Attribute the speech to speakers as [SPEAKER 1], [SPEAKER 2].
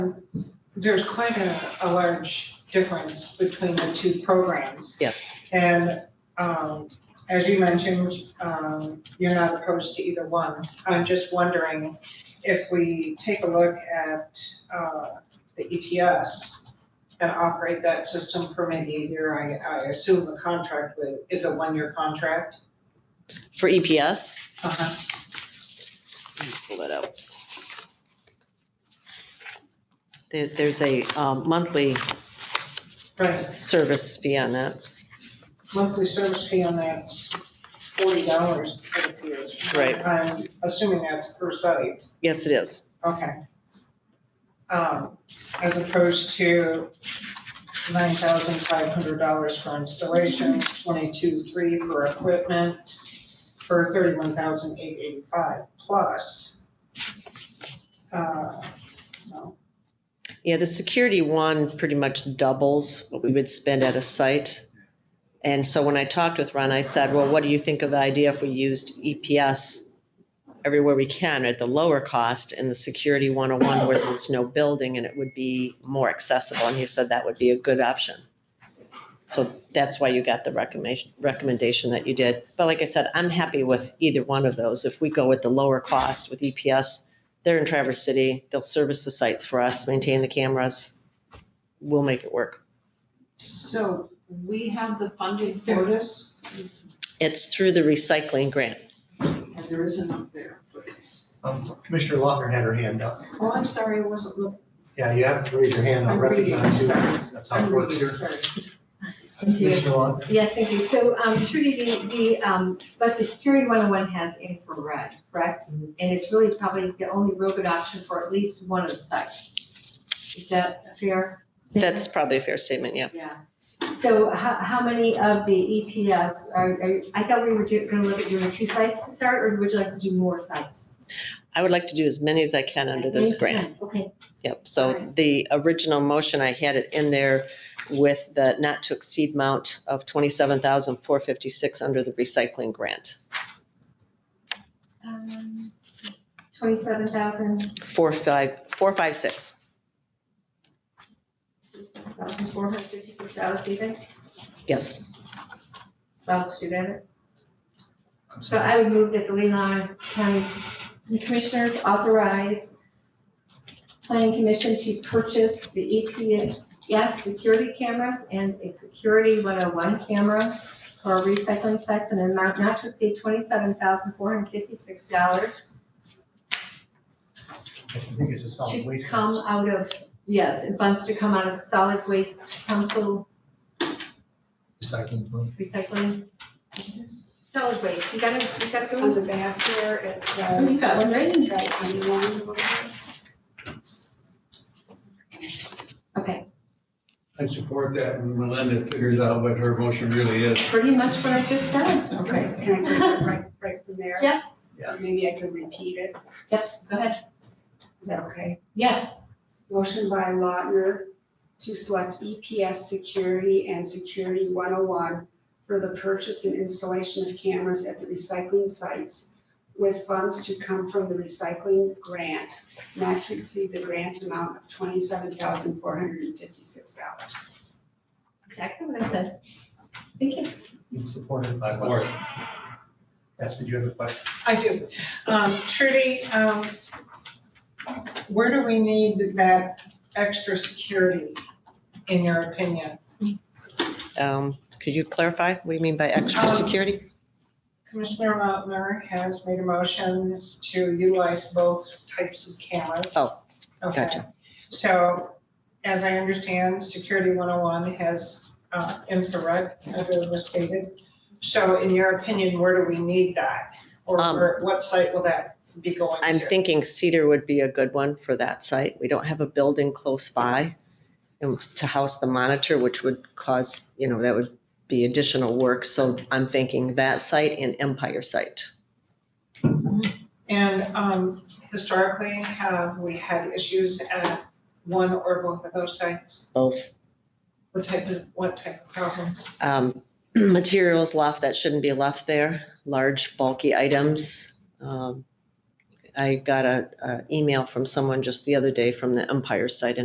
[SPEAKER 1] there's quite a, a large difference between the two programs.
[SPEAKER 2] Yes,
[SPEAKER 1] And, um, as you mentioned, um, you're not opposed to either one. I'm just wondering if we take a look at, uh, the EPS and operate that system for maybe a year, I, I assume the contract with, is a one-year contract?
[SPEAKER 2] for EPS,
[SPEAKER 1] Uh-huh.
[SPEAKER 2] let me pull that out. There, there's a um, monthly
[SPEAKER 1] Right,
[SPEAKER 2] service fee on that.
[SPEAKER 1] monthly service fee on that's forty dollars for the years.
[SPEAKER 2] Right.
[SPEAKER 1] I'm assuming that's per site.
[SPEAKER 2] Yes, it is.
[SPEAKER 1] Okay. Um, as opposed to nine thousand five hundred dollars for installation, twenty-two, three for equipment, for thirty-one thousand eight eighty-five plus. uh, no,
[SPEAKER 2] Yeah, the security one pretty much doubles what we would spend at a site. And so when I talked with Ron, I said, well, what do you think of the idea if we used EPS everywhere we can at the lower cost and the security 101 where there's no building and it would be more accessible? And he said that would be a good option. So that's why you got the recommendation, recommendation that you did. But like I said, I'm happy with either one of those. If we go with the lower cost with E EPS, they're in Traverse City. They'll service the sites for us, maintain the cameras. We'll make it work.
[SPEAKER 1] So we have the funding for this,
[SPEAKER 2] It's through the recycling grant.
[SPEAKER 1] and there is enough there for this.
[SPEAKER 3] Um, Commissioner Lochner had her hand up.
[SPEAKER 1] Oh, I'm sorry, I wasn't looking.
[SPEAKER 3] Yeah, you have to raise your hand. I
[SPEAKER 1] I'm reading,
[SPEAKER 3] recognize you.
[SPEAKER 1] sorry.
[SPEAKER 3] That's how it works here.
[SPEAKER 1] Sorry.
[SPEAKER 4] Thank you.
[SPEAKER 3] Commissioner Lochner,
[SPEAKER 4] Yes, thank you. So um, Trudy, the, the, um, but the Security 101 has infrared, correct? And it's really probably the only real good option for at least one of the sites. Is that a fair? statement?
[SPEAKER 2] That's probably a fair statement, yeah.
[SPEAKER 4] Yeah. So how, how many of the EPS are, are- I thought we were do- gonna look at doing two sites to start, or would you like to do more sites?
[SPEAKER 2] I would like to do as many as I can under this grant.
[SPEAKER 4] Okay,
[SPEAKER 2] Yep, so the original motion, I had it in there with the not to exceed amount of 27,456 under the recycling grant.
[SPEAKER 4] um, 27,000,
[SPEAKER 2] 45 456.
[SPEAKER 4] 1,456 dollars, do you think?
[SPEAKER 2] yes.
[SPEAKER 4] Well, shoot at it.
[SPEAKER 3] I'm
[SPEAKER 4] So
[SPEAKER 3] sorry.
[SPEAKER 4] I would move that the Leland County Commissioners authorize Planning Commission to purchase the EPS security cameras and a Security 101 camera for recycling sites in an amount not to exceed $27,456
[SPEAKER 3] I think it's a solid
[SPEAKER 4] to
[SPEAKER 3] Oh, waste.
[SPEAKER 4] come out of, yes, and funds to come out of solid waste council
[SPEAKER 3] Recycling plant.
[SPEAKER 4] recycling. Solid waste, you gotta, you gotta go
[SPEAKER 5] On the back here, it
[SPEAKER 4] Who's
[SPEAKER 5] says.
[SPEAKER 4] that?
[SPEAKER 5] Wondering about anyone.
[SPEAKER 4] Okay,
[SPEAKER 6] I support that when Melinda figures out what her motion really is.
[SPEAKER 4] pretty much what I just said.
[SPEAKER 5] Okay, can I take it right, right from there?
[SPEAKER 4] Yeah.
[SPEAKER 3] Yeah.
[SPEAKER 5] Maybe I could repeat it.
[SPEAKER 4] Yep, go ahead.
[SPEAKER 5] Is that okay?
[SPEAKER 4] Yes.
[SPEAKER 5] Motion by Lautner to select EPS Security and Security 101 for the purchase and installation of cameras at the recycling sites with funds to come from the recycling grant, not to exceed the grant amount of $27,456.
[SPEAKER 4] Exactly what I said. Thank you.
[SPEAKER 3] It's supported by
[SPEAKER 6] Support.
[SPEAKER 3] Wes. Yes, did you have a question?
[SPEAKER 1] I do. Um, Trudy, um, where do we need that extra security, in your opinion?
[SPEAKER 2] Um, Could you clarify what you mean by extra
[SPEAKER 1] Um,
[SPEAKER 2] security?
[SPEAKER 1] Commissioner Motner has made a motion to utilize both types of cameras.
[SPEAKER 2] Oh,
[SPEAKER 1] Okay.
[SPEAKER 2] gotcha.
[SPEAKER 1] So as I understand, Security 101 has uh, infrared, as it was stated. So in your opinion, where do we need that? Or
[SPEAKER 2] Um,
[SPEAKER 1] where- what site will that be going to?
[SPEAKER 2] I'm thinking Cedar would be a good one for that site. We don't have a building close by and to house the monitor, which would cause, you know, that would be additional work. So I'm thinking that site and Empire site.
[SPEAKER 1] And um, historically, have we had issues at one or both of those sites?
[SPEAKER 2] Both.
[SPEAKER 1] What type of, what type of problems?
[SPEAKER 2] Um, Materials left that shouldn't be left there, large bulky items. Um, I got a, a email from someone just the other day from the Empire site